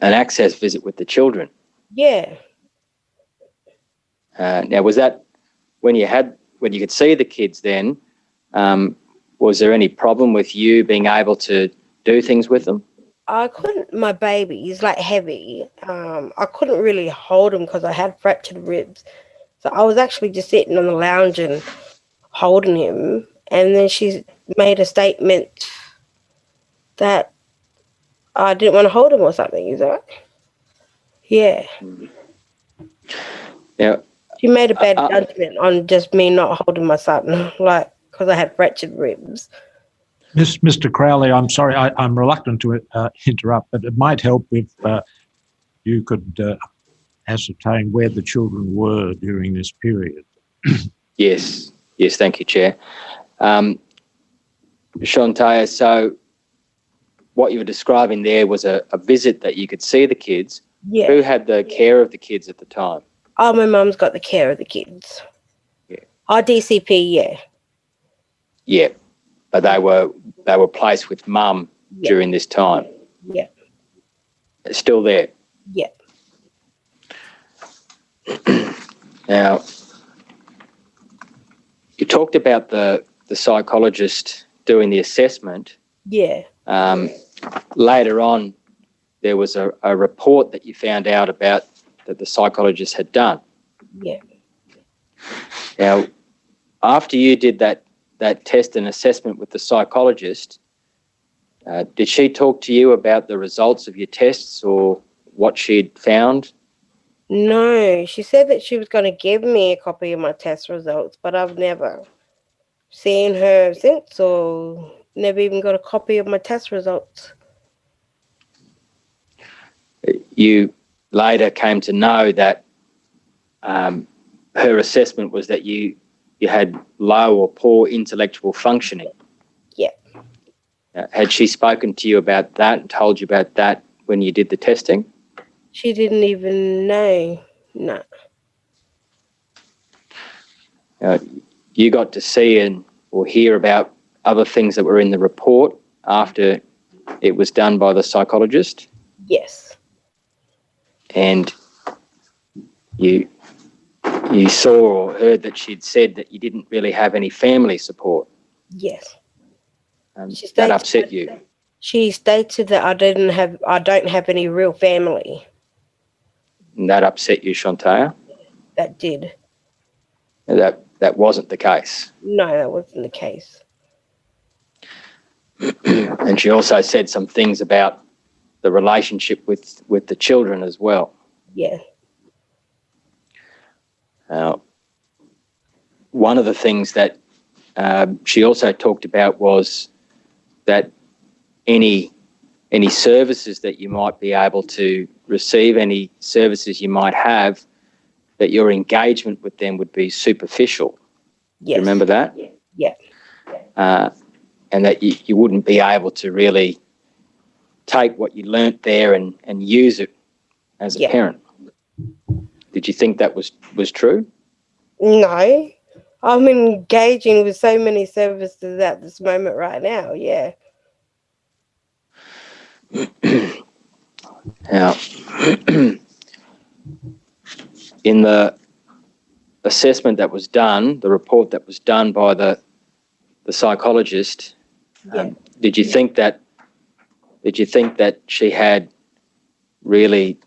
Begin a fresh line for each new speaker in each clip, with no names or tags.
an access visit with the children.
Yeah.
Uh, now, was that when you had when you could see the kids? Then, um, was there any problem with you being able to do things with them?
I couldn't, my baby is like heavy. Um, I couldn't really hold him because I had fractured ribs. So I was actually just sitting on the lounge and holding him. And then she made a statement that I didn't want to hold him or something. Is that right? Yeah.
Yeah.
She made a bad
Uh, uh,
judgment on just me not holding my son, like, because I had fractured ribs.
Miss, Mr. Crowley, I'm sorry, I, I'm reluctant to uh, interrupt, but it might help if uh, you could uh, ascertain where the children were during this period.
Yes, yes, thank you, Chair. Um, Shantaya, so what you were describing there was a, a visit that you could see the kids.
Yeah.
Who had the care of the kids at the time?
Oh, my mum's got the care of the kids. Oh,
Yeah.
Our DCP, yeah.
Yeah, but they were they were placed with mum
Yeah.
during this time.
Yeah.
Still there.
Yeah.
Now, you talked about the the psychologist doing the assessment.
Yeah.
Um, later on, there was a, a report that you found out about that the psychologist had done.
Yeah.
Now, after you did that that test and assessment with the psychologist, uh, did she talk to you about the results of your tests or what she'd found?
No, she said that she was going to give me a copy of my test results, but I've never seen her since or never even got a copy of my test results.
You later came to know that um, her assessment was that you you had low or poor intellectual functioning.
Yeah.
Uh, had she spoken to you about that and told you about that when you did the testing?
She didn't even know. No.
you got to see and or hear about other things that were in the report after it was done by the psychologist
Yes.
and you you saw or heard that she'd said that you didn't really have any family support
Yes.
and
She
Um, that
stated-
upset you
She stated that I didn't have, I don't have any real family
and that upset you Shantaya
that did.
And that that wasn't the case
No, that wasn't the case.
and she also said some things about the relationship with with the children as well
Yeah.
Uh, one of the things that um, she also talked about was that any any services that you might be able to receive, any services you might have, that your engagement with them would be superficial. Do
Yes.
you Remember that?
Yeah.
Uh, and that you, you wouldn't be able to really take what you learnt there and, and use it as a
Yeah.
parent. Did you think that was, was true?
No, I'm engaging with so many services at this moment right now. Yeah.
Now, in the assessment that was done, the report that was done by the the psychologist,
Yeah.
um, did you think that did you think that she had really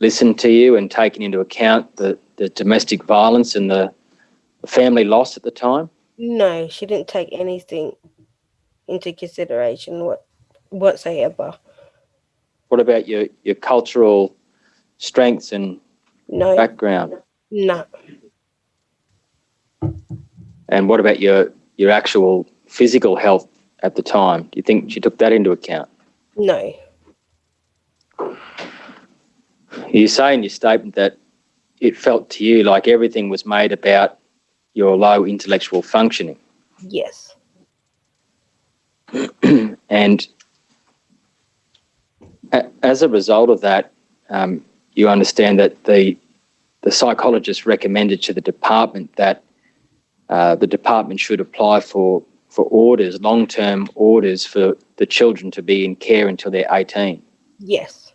listened to you and taken into account the, the domestic violence and the, the family loss at the time?
No, she didn't take anything into consideration what whatsoever.
What about your, your cultural strengths and
No,
background?
no,
And what about your your actual physical health at the time? Do you think she took that into account?
no.
You say in your statement that it felt to you like everything was made about your low intellectual functioning,
Yes,
and a- as a result of that, um, you understand that the the psychologist recommended to the department that uh, the department should apply for for orders, long term orders for the children to be in care until they're eighteen.
yes,